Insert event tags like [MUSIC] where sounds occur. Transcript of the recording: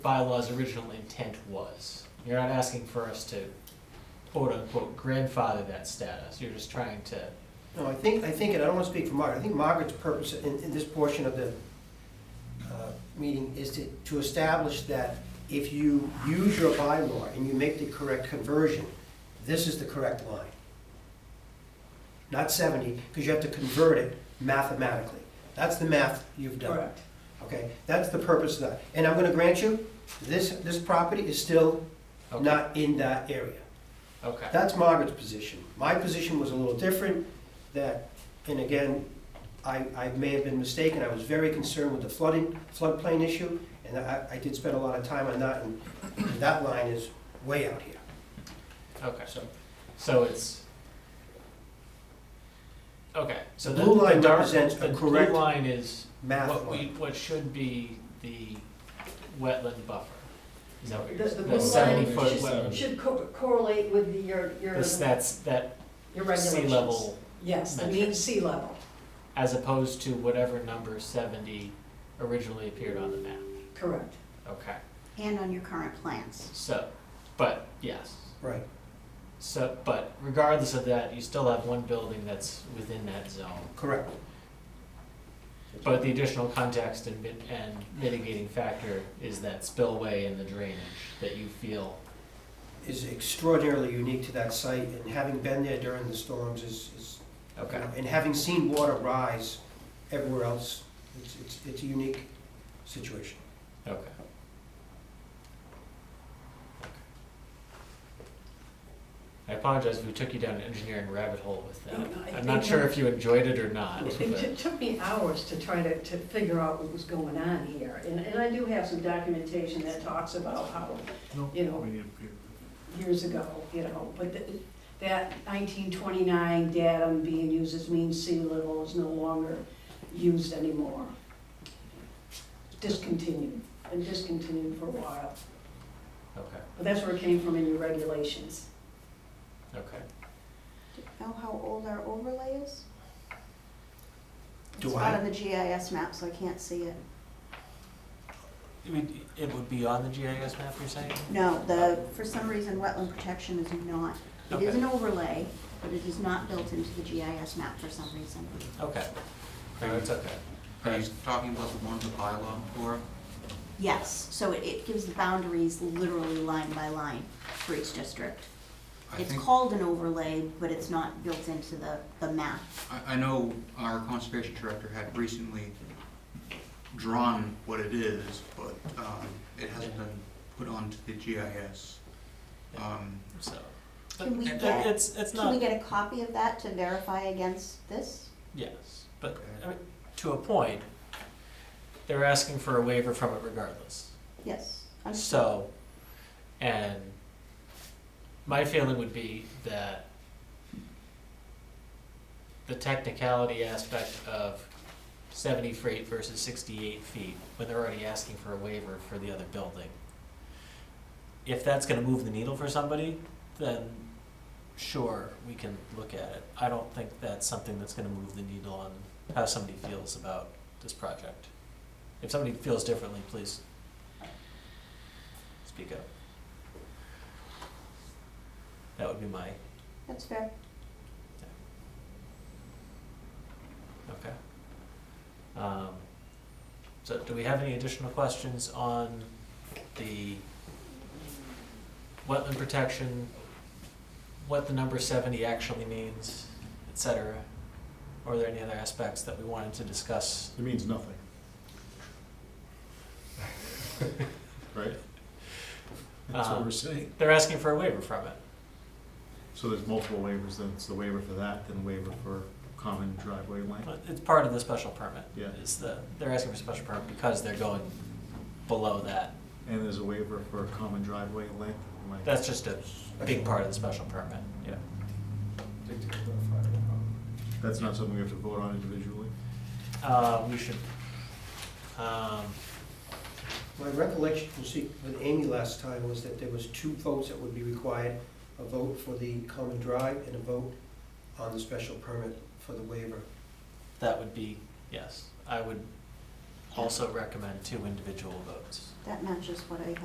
bylaw's original intent was. You're not asking for us to quote unquote grandfather that status, you're just trying to, No, I think, I think, and I don't want to speak for Margaret, I think Margaret's purpose in, in this portion of the uh, meeting is to, to establish that if you use your bylaw and you make the correct conversion, this is the correct line. Not seventy, because you have to convert it mathematically. That's the math you've done. Correct. Okay, that's the purpose of that. And I'm gonna grant you, this, this property is still okay, not in that area. okay. That's Margaret's position. My position was a little different, that, and again, I, I may have been mistaken, I was very concerned with the flooding, floodplain issue, and I, I did spend a lot of time on that, and that line is way out here. Okay, So, so it's, okay, so the, blue line the dark, represents a the blue correct line is math what we, line. what should be the wetland buffer. Is that what The, you're, the the blue seventy line foot should, wetland, should co- correlate with the- your, your, this, that's, that your sea regulations. level, Yes, the mean metric. sea level, as opposed to whatever number seventy originally appeared on the map, correct. okay, And on your current plans. so, but, yes. Right, So, but regardless of that, you still have one building that's within that zone. correct. But the additional context and, mit- and mitigating factor is that spillway and the drainage that you feel. Is extraordinarily unique to that site, and having been there during the storms is, is, you know, and having seen water rise everywhere else, it's, it's, it's a unique situation. Okay. I apologize if we took you down an engineering rabbit hole with that. No, no, I I'm not think sure I'm- if you enjoyed it or not, It but- it took me hours to try to, to figure out what was going on here, and, and I do have some documentation that talks about how, you know, years ago, you know, but th- that nineteen twenty-nine datum being used as mean sea level is no longer used anymore. Discontinued, and discontinued for a while, okay, but that's where it came from in your regulations. okay. Know how old our overlay is? Do It's I- out of the GIS map, so I can't see it. It would, it would be on the GIS map, you're saying? No, the, for some reason, wetland protection is not, it is Okay. an overlay, but it is not built into the GIS map for some reason. Okay. No, it's okay. Are you talking about the one with the bylaw for? Yes, so it, it gives the boundaries literally line by line for each district. I It's think, called an overlay, but it's not built into the, the map. I, I know our conservation director had recently drawn what it is, but, um, it hasn't been put onto the GIS. Um, So. Can we It- get- It's, it's Can we not, get a copy of that to verify against this? yes, but, I mean, to a point, they're asking for a waiver from it regardless. Yes. I'm- So, and my feeling would be that the technicality aspect of seventy feet versus sixty-eight feet, when they're already asking for a waiver for the other building. If that's gonna move the needle for somebody, then sure, we can look at it. I don't think that's something that's gonna move the needle on how somebody feels about this project. If somebody feels differently, please speak up. That would be my, That's fair. okay. Um, so do we have any additional questions on the wetland protection, what the number seventy actually means, et cetera? Or are there any other aspects that we wanted to [LAUGHS] discuss? It means nothing. Right? That's what Um, we're saying. They're asking for a waiver from it. So there's multiple waivers, then it's the waiver for that, then waiver for common driveway length. But It's part of the special permit. Yeah. It's the, they're asking for a special permit because they're going below that. And there's a waiver for common driveway length. Am I- That's just a big part of the special permit, yeah. That's not something we have to vote on individually? Uh, we should, um, My recollection from speak with Amy last time was that there was two votes that would be required, a vote for the common drive and a vote on the special permit for the waiver. that would be, yes, I would also recommend two individual votes. That matches what I